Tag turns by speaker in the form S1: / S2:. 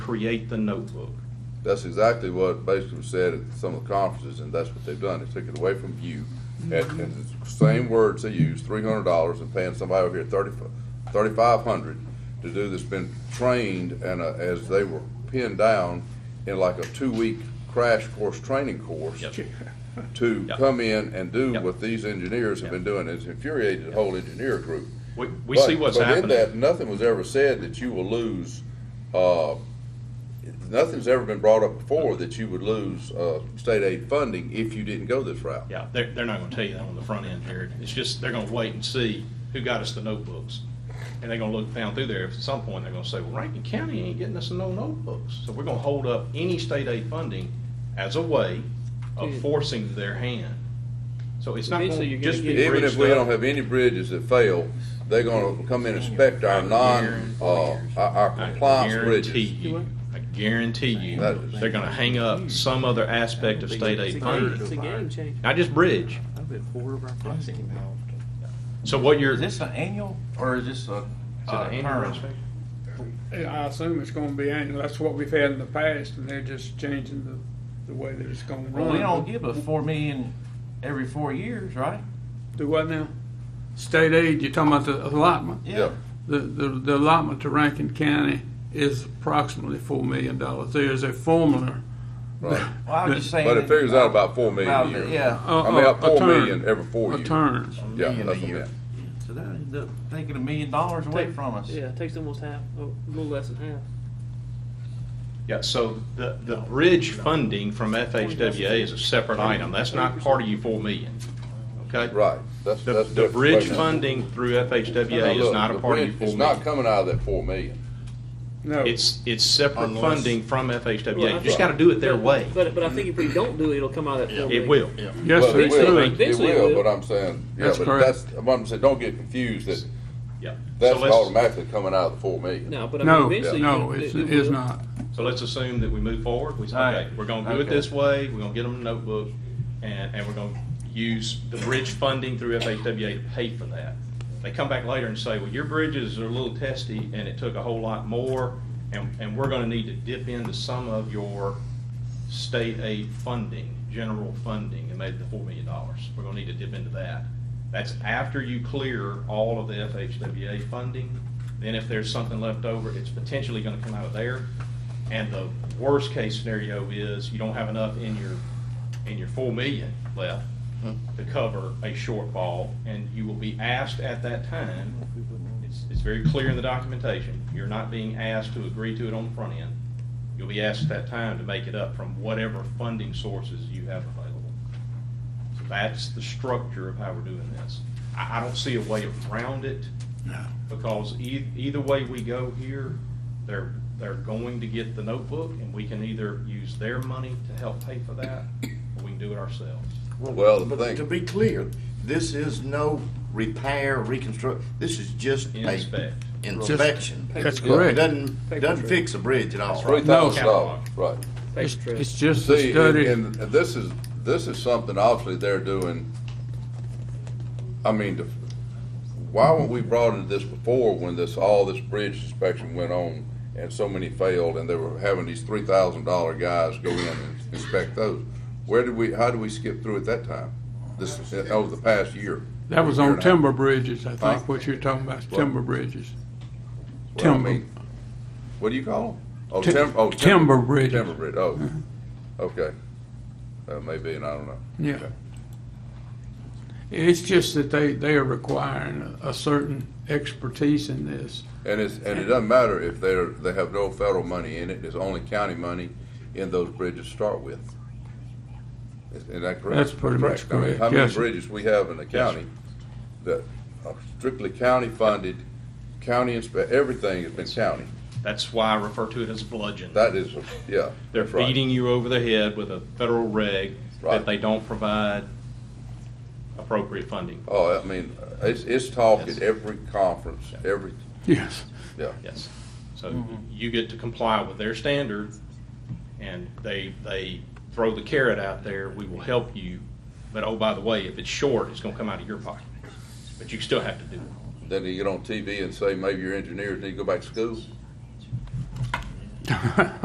S1: create the notebook.
S2: That's exactly what basically was said at some of the conferences, and that's what they've done. They took it away from you.
S1: Mm-hmm.
S2: And, and the same words they use, three hundred dollars and paying somebody over here thirty, thirty-five hundred to do this, been trained and, uh, as they were pinned down in like a two-week crash course, training course.
S1: Yep.
S2: To
S1: Yep.
S2: come in and do
S1: Yep.
S2: what these engineers have been doing. It's infuriated the whole engineer group.
S1: We, we see
S2: But-
S1: what's
S2: but in
S1: happening.
S2: that, Nothing was ever said that you will lose, uh, nothing's ever been brought up before that you would lose, uh, state aid funding if you didn't go this route.
S1: Yeah, they're, they're not gonna tell you that on the front end, Jared. It's just, they're gonna wait and see who got us the notebooks. And they're gonna look down through there. At some point, they're gonna say, well, Rankin County ain't getting us no notebooks. So we're gonna hold up any state aid funding as a way of forcing their hand. So it's not
S3: Eventually,
S1: gonna
S3: you're
S1: just be
S3: gonna get-
S2: Even if we
S1: bridged
S2: don't
S1: up.
S2: have any bridges that fail, they're gonna come in and inspect our non, uh, our- our
S1: I
S2: compliance
S1: guarantee
S2: bridges.
S1: you, I guarantee you,
S2: That-
S1: they're gonna hang up some other aspect of state
S3: It's a
S1: aid
S3: game, it's
S1: funding,
S3: a game changer.
S1: not just bridge.
S3: I've been four of our friends.
S1: So what you're,
S4: Is this an annual or is this a?
S1: Is it
S4: uh,
S1: an annual
S4: term?
S1: inspection?
S5: I assume it's gonna be annual, that's what we've had in the past, and they're just changing the, the way that it's gonna
S4: Well,
S5: run.
S4: we don't give a four million every four years, right?
S5: Do what now? State aid, you're talking about the allotment?
S2: Yeah,
S5: The, the, the allotment to Rankin County is approximately four million dollars. There's a formula.
S2: right.
S4: Well, I was just saying.
S2: But it
S4: that-
S2: figures out about four million a
S4: About
S2: year.
S4: the- Yeah.
S5: uh,
S2: I mean,
S5: uh,
S2: about four
S5: a turn-
S2: million every four
S5: A
S2: years.
S5: turn.
S2: Yeah,
S4: Million a
S2: that's what I
S4: year.
S2: meant.
S4: So that ends up taking a million dollars away from us.
S3: Yeah, it takes almost half, a little less than half.
S1: yeah, so the, the bridge funding from FHWA is a separate item. That's not part of your four million, okay?
S2: Right, that's,
S1: The,
S2: that's.
S1: the
S2: different.
S1: bridge
S2: Right now.
S1: funding through
S2: Now,
S1: FHWA is
S2: look,
S1: not a
S2: the
S1: part of your
S2: bridge-
S1: four
S2: It's not
S1: million.
S2: coming out of that four million.
S5: No,
S1: It's, it's separate
S6: Unless-
S1: funding from FHWA. You
S3: Right.
S1: just gotta do it their way.
S3: But, but I think if we don't do it, it'll come out of that four million.
S1: It will.
S5: yes,
S2: Well,
S5: sir,
S2: it
S5: it
S2: will,
S5: could.
S2: It
S3: Eventually it
S2: will,
S3: will.
S2: but I'm saying, yeah,
S5: That's
S2: but
S5: correct.
S2: that's, what I'm saying, don't get confused that
S1: Yeah. So
S2: that's
S1: let's,
S2: automatically coming out of the four million.
S3: No, but I mean,
S5: No,
S3: eventually.
S5: no,
S3: it-
S5: it's,
S3: it
S5: it's
S3: will.
S5: not.
S1: so let's assume that we move forward. We say,
S4: All right.
S1: okay, we're gonna do it
S4: Okay.
S1: this way. We're gonna get them a notebook and, and we're gonna use the bridge funding through FHWA to pay for that. They come back later and say, well, your bridges are a little testy and it took a whole lot more and, and we're gonna need to dip into some of your state aid funding, general funding, and maybe the four million dollars. We're gonna need to dip into that. That's after you clear all of the FHWA funding. Then if there's something left over, it's potentially gonna come out of there. And the worst case scenario is you don't have enough in your, in your four million left to cover a shortfall, and you will be asked at that time, it's, it's very clear in the documentation, you're not being asked to agree to it on the front end. You'll be asked at that time to make it up from whatever funding sources you have available. So that's the structure of how we're doing this. I, I don't see a way around it. Because e- either way we go here, they're, they're going to get the notebook, and we can either use their money to help pay for that, or we can do it ourselves.
S2: Well, the
S6: But
S2: thing-
S6: to be clear, this is no repair, reconstruct, this is just a
S1: Inspect.
S6: inspection.
S5: That's
S6: Yeah, it
S5: correct.
S6: Doesn't, doesn't fix a bridge at all,
S2: Three
S6: right?
S2: thousand
S1: No.
S2: dollars, right.
S3: Paper
S5: It's,
S3: trail.
S5: it's just a
S2: See, and,
S5: study.
S2: and this is, this is something obviously they're doing, I mean, the- why weren't we brought into this before when this, all this bridge inspection went on and so many failed and they were having these three thousand dollar guys go in and inspect those? Where did we, how did we skip through at that time? This, uh, over the past year?
S5: That was
S2: year
S5: on
S2: and a half?
S5: timber bridges, I
S2: Huh?
S5: think, what you're talking about, is timber bridges.
S2: Well, I
S5: Timber.
S2: mean, What do you call them? Oh,
S5: Ti-
S2: tim- oh,
S5: timber bridges.
S2: Timber bridge, oh, okay. That may be, and I don't know.
S5: Yeah.
S2: Okay.
S5: It's just that they, they are requiring a- a certain expertise in this.
S2: And it's, and it doesn't matter if they're, they have no federal money in it, it's only county money in those bridges to start with. Is is that correct?
S5: That's pretty much
S2: I mean,
S5: correct,
S2: How many
S5: yes, sir.
S2: bridges we have in the county that are strictly county funded, county inspe, everything has been county.
S1: That's why I refer to it as bludgeon.
S2: That is, yeah.
S1: They're
S2: that's right.
S1: beating you over the head with a federal reg
S2: Right.
S1: that they don't provide appropriate funding. for.
S2: Oh, I mean, it's, it's talk
S1: Yes.
S2: at every conference, every,
S5: Yes.
S2: yeah.
S1: Yes. So you get to comply with their standard, and they, they throw the carrot out there, we will help you, but oh, by the way, if it's short, it's gonna come out of your pocket. But you still have to do it.
S2: Then you get on TV and say, maybe your engineers need to go back to school.